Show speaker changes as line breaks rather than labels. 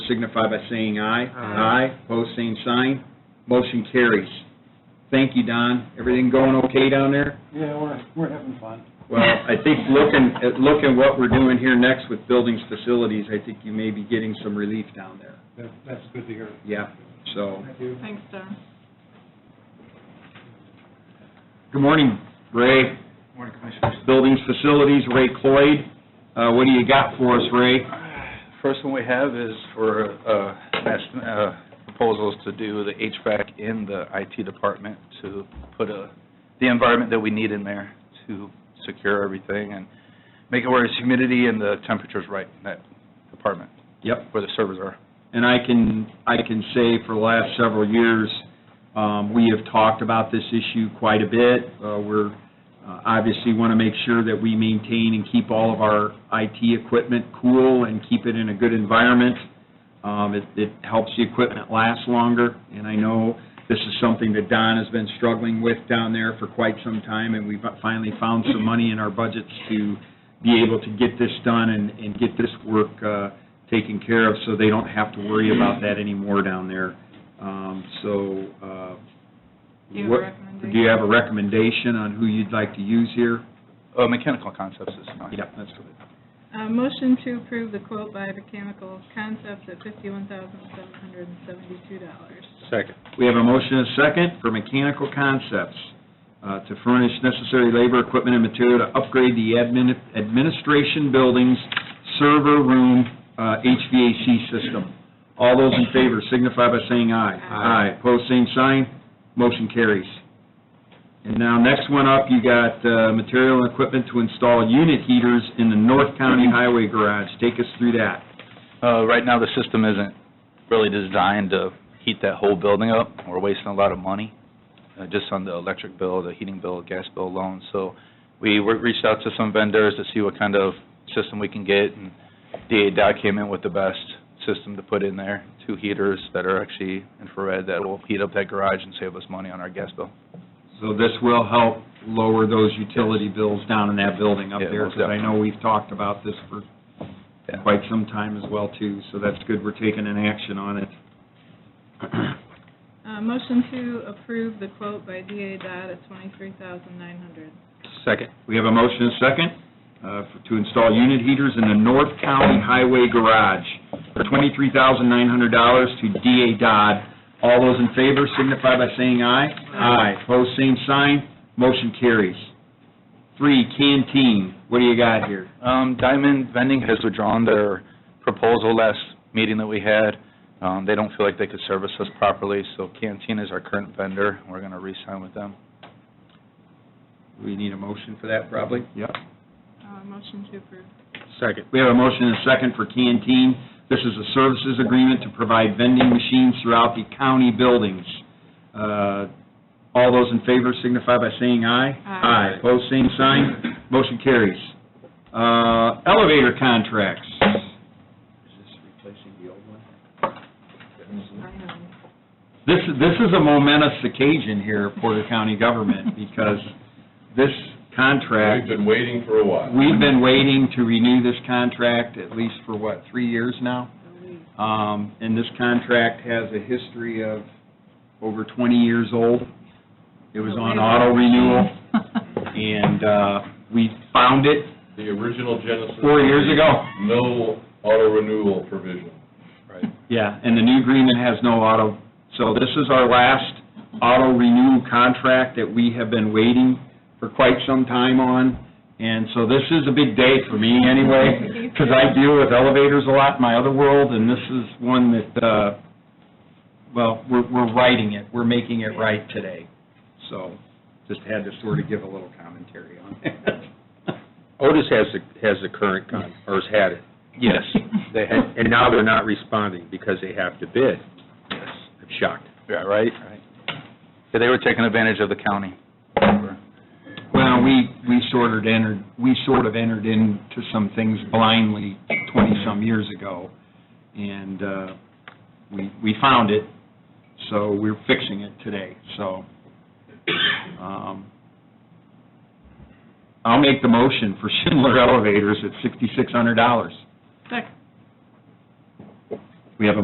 signify by saying aye.
Aye.
Aye, pose same sign, motion carries. Thank you, Don. Everything going okay down there?
Yeah, we're, we're having fun.
Well, I think looking, at looking what we're doing here next with buildings, facilities, I think you may be getting some relief down there.
That's, that's good to hear.
Yeah, so,
Thank you.
Thanks, Don.
good morning, Ray.
Morning, Commissioners.
Buildings, facilities, Ray Cloyd. Uh, what do you got for us, Ray?
First one we have is for uh, last, uh, proposals to do the HVAC in the IT department to put a- the environment that we need in there to secure everything and make it where it's humidity and the temperature's right in that department,
Yep.
where the servers are.
And I can, I can say for the last several years, um, we have talked about this issue quite a bit. Uh, We're, uh, obviously want to make sure that we maintain and keep all of our IT equipment cool and keep it in a good environment. Um, It, it helps the equipment last longer, and I know this is something that Don has been struggling with down there for quite some time, and we've finally found some money in our budgets to be able to get this done and, and get this work uh, taken care of, so they don't have to worry about that anymore down there. Um, So, uh,
Do you have a
what-
recommendation?
Do you have a recommendation on who you'd like to use here?
Uh, Mechanical Concepts is fine.
Yep, that's good.
Uh, Motion to approve the quote by Mechanical Concepts at $51,772.
Second.
We have a motion and a second for Mechanical Concepts uh, to furnish necessary labor, equipment, and material to upgrade the admin- administration building's server room uh, HVAC system. All those in favor signify by saying aye.
Aye.
Aye, pose same sign, motion carries. And now, next one up, you got uh, material and equipment to install unit heaters in the North County Highway Garage. Take us through that.
Uh, Right now, the system isn't really designed to heat that whole building up. We're wasting a lot of money, uh, just on the electric bill, the heating bill, gas bill alone. So we wor- reached out to some vendors to see what kind of system we can get, and DA Dot came in with the best system to put in there, two heaters that are actually infrared that will heat up that garage and save us money on our gas bill.
So this will help lower those utility bills down in that building up
Yeah,
there,
most
because I know we've talked about this for
Yeah.
quite some time as well, too, so that's good, we're taking an action on it.
Uh, Motion to approve the quote by DA Dodd at $23,900.
Second. We have a motion and second uh, for- to install unit heaters in the North County Highway Garage for $23,900 to DA Dodd. All those in favor signify by saying aye.
Aye.
Pose same sign, motion carries. Three, canteen, what do you got here?
Um, Diamond Vending has withdrawn their proposal last meeting that we had. Um, They don't feel like they could service us properly, so Canteen is our current vendor. We're going to re-sign with them.
We need a motion for that, probably? Yep.
Uh, Motion to approve.
Second. We have a motion and a second for Canteen. This is a services agreement to provide vending machines throughout the county buildings. Uh, All those in favor signify by saying aye.
Aye.
Pose same sign, motion carries. Uh, Elevator contracts. Is this replacing the old one?
Aye.
This, this is a momentous occasion here, Porter County government, because this contract
We've been waiting for a while.
We've been waiting to renew this contract at least for, what, three years now? Um, And this contract has a history of over 20 years old. It was on auto renewal, and uh, we found it
The original Genesis.
four years ago.
No auto renewal provision.
Right.
Yeah, and the new agreement has no auto, so this is our last auto renew contract that we have been waiting for quite some time on, and so this is a big day for me anyway, because I deal with elevators a lot in my other world, and this is one that, uh, well, we're, we're writing it, we're making it right today, so just had to sort of give a little commentary on it.
Otis has the, has the current con, or has had it,
Yes.
They had- and now they're not responding because they have to bid.
Yes.
I'm shocked.
Yeah, right, right. Yeah, they were taking advantage of the county.
Well, we, we sort of entered, we sort of entered into some things blindly twenty-some years ago, and uh, we, we found it, so we're fixing it today, so. um, I'll make the motion for Schindler Elevators at sixty-six hundred dollars.
Second.